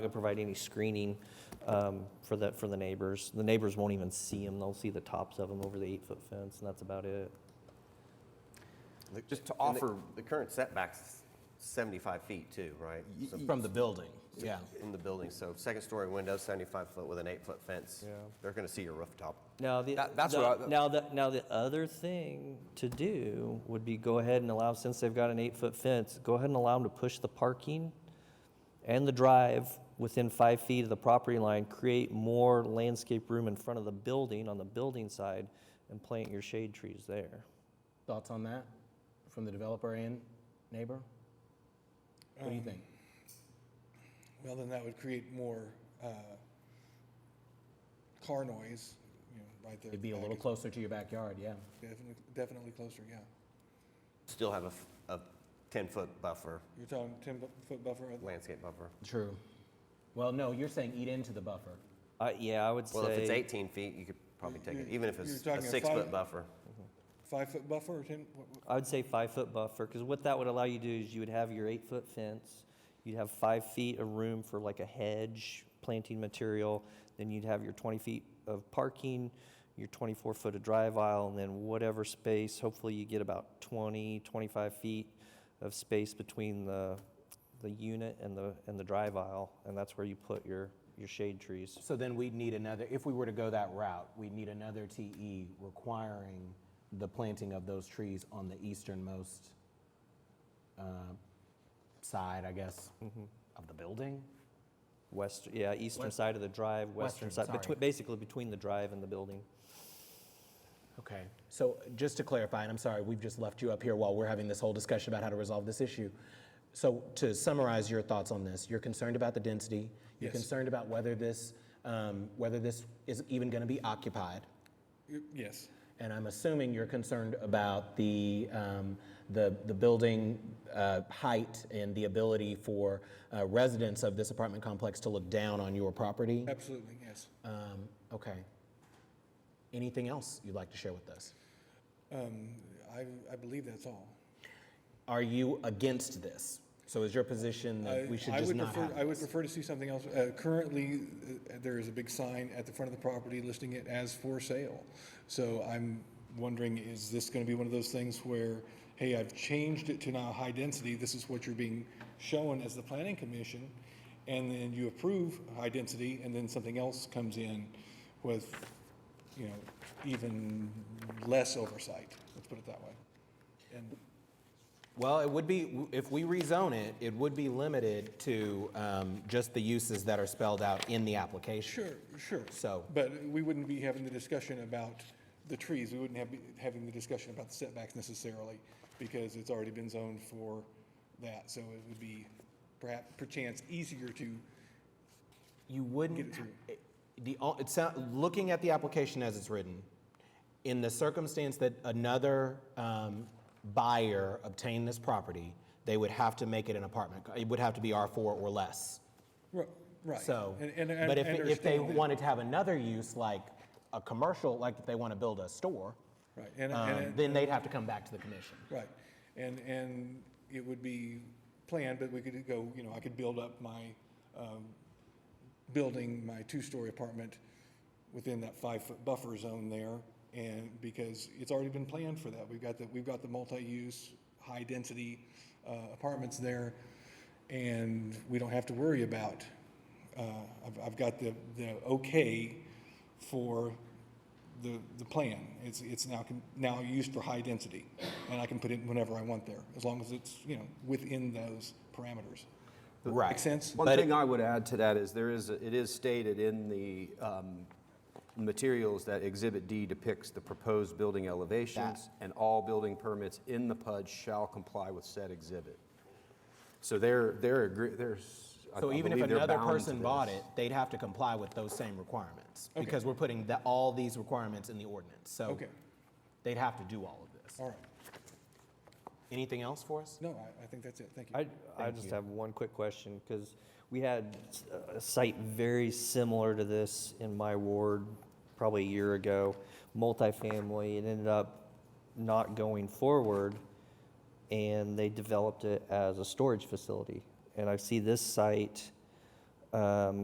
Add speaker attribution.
Speaker 1: to provide any screening um, for the, for the neighbors. The neighbors won't even see them, they'll see the tops of them over the eight-foot fence, and that's about it.
Speaker 2: Just to
Speaker 3: And the-
Speaker 2: offer,
Speaker 3: The current setback's 75 feet too, right? So-
Speaker 2: from the building, yeah.
Speaker 3: In the building, so second story window, 75 foot with an eight foot fence.
Speaker 1: Yeah.
Speaker 3: They're going to see your rooftop.
Speaker 1: Now, the,
Speaker 2: That- that's
Speaker 1: the-
Speaker 2: what I-
Speaker 1: now, the, now the other thing to do would be go ahead and allow, since they've got an eight-foot fence, go ahead and allow them to push the parking and the drive within five feet of the property line, create more landscape room in front of the building, on the building side, and plant your shade trees there.
Speaker 4: Thoughts on that from the developer and neighbor? What do you think?
Speaker 5: Um, Well, then that would create more uh, car noise, you know, right there. at
Speaker 4: It'd
Speaker 5: the
Speaker 4: be a
Speaker 5: back
Speaker 4: little
Speaker 5: is
Speaker 4: closer to your backyard, yeah.
Speaker 5: Definitely, definitely closer, yeah.
Speaker 3: Still have a f- a 10 foot buffer,
Speaker 5: You're talking ten-foot buffer, uh, at-
Speaker 3: landscape buffer.
Speaker 4: True. Well, no, you're saying eat into the buffer.
Speaker 1: Uh, yeah, I would say.
Speaker 3: Well, if it's 18 feet, you could probably take it,
Speaker 5: You're-
Speaker 3: even if
Speaker 5: you're
Speaker 3: it's a
Speaker 5: talking a
Speaker 3: six foot
Speaker 5: five-
Speaker 3: buffer.
Speaker 5: five-foot buffer or ten? what- what-
Speaker 1: I would say five-foot buffer, because what that would allow you to do is you would have your eight-foot fence, you'd have five feet of room for like a hedge, planting material, then you'd have your 20 feet of parking, your 24-foot of drive aisle, and then whatever space, hopefully you get about 20, 25 feet of space between the, the unit and the, and the drive aisle, and that's where you put your, your shade trees.
Speaker 4: So then we'd need another, if we were to go that route, we'd need another TE requiring the planting of those trees on the easternmost uh, side, I guess, of the building?
Speaker 1: West, yeah, eastern side of the drive, western
Speaker 4: Western,
Speaker 1: side,
Speaker 4: sorry.
Speaker 1: between- basically between the drive and the building.
Speaker 4: Okay, so just to clarify, and I'm sorry, we've just left you up here while we're having this whole discussion about how to resolve this issue. So to summarize your thoughts on this, you're concerned about the density, you're
Speaker 5: Yes.
Speaker 4: concerned about whether this, um, whether this is even going to be occupied,
Speaker 5: y- Yes,
Speaker 4: and I'm assuming you're concerned about the, um, the, the building uh, height and the ability for uh, residents of this apartment complex to look down on your property.
Speaker 5: absolutely, yes.
Speaker 4: Um, okay. Anything else you'd like to share with us?
Speaker 5: Um, I, I believe that's all.
Speaker 4: Are you against this? So is your position that
Speaker 5: I-
Speaker 4: we should
Speaker 5: I
Speaker 4: just
Speaker 5: would
Speaker 4: not
Speaker 5: prefer- I
Speaker 4: have
Speaker 5: would
Speaker 4: this?
Speaker 5: prefer to see something else. Uh, Currently, uh, there is a big sign at the front of the property listing it as for sale. So I'm wondering, is this going to be one of those things where, hey, I've changed it to now high density, this is what you're being shown as the planning commission, and then you approve high density, and then something else comes in with, you know, even less oversight, let's put it that way. And
Speaker 4: Well, it would be, if we rezone it, it would be limited to um, just the uses that are spelled out in the application.
Speaker 5: Sure, sure.
Speaker 4: So-
Speaker 5: But we wouldn't be having the discussion about the trees. We wouldn't have, having the discussion about the setbacks necessarily because it's already been zoned for that. So it would be perhaps, perchance easier to,
Speaker 4: You wouldn't.
Speaker 5: Get it through.
Speaker 4: it- The, o- it sound, looking at the application as it's written, in the circumstance that another um, buyer obtained this property, they would have to make it an apartment. co- It would have to be R four or less.
Speaker 5: ri- right.
Speaker 4: So,
Speaker 5: And- and I
Speaker 4: but if, if they
Speaker 5: understand that.
Speaker 4: wanted to have another use, like a commercial, like if they want to build a store,
Speaker 5: Right, and,
Speaker 4: um,
Speaker 5: and,
Speaker 4: then they'd have to come back to the commission.
Speaker 5: right. And, and it would be planned, but we could go, you know, I could build up my, um, building my two-story apartment within that five-foot buffer zone there, and because it's already been planned for that. We've got the, we've got the multi-use, high-density uh, apartments there, and we don't have to worry about, uh, I've, I've got the, the okay for the, the plan. It's, it's now, con- now used for high-density, and I can put it whenever I want there, as long as it's, you know, within those parameters.
Speaker 4: Right.
Speaker 5: Make sense?
Speaker 2: One thing I would add to that is there is, a- it is stated in the um, materials that Exhibit D depicts the proposed building elevations, and all building permits in the PUD shall comply with said exhibit. So they're, they're, agree- there's. I-
Speaker 4: So
Speaker 2: I
Speaker 4: even if
Speaker 2: believe they're
Speaker 4: another
Speaker 2: bound to
Speaker 4: person bought
Speaker 2: this.
Speaker 4: it, they'd have to comply with those same requirements because we're putting the, all these requirements in the ordinance. So
Speaker 5: Okay.
Speaker 4: they'd have to do all of this.
Speaker 5: All right.
Speaker 4: Anything else for us?
Speaker 5: No, I, I think that's it. Thank you.
Speaker 1: I, I just have one quick question, because we had s- a site very similar to this in my ward probably a year ago, multifamily, it ended up not going forward, and they developed it as a storage facility. And I see this site um,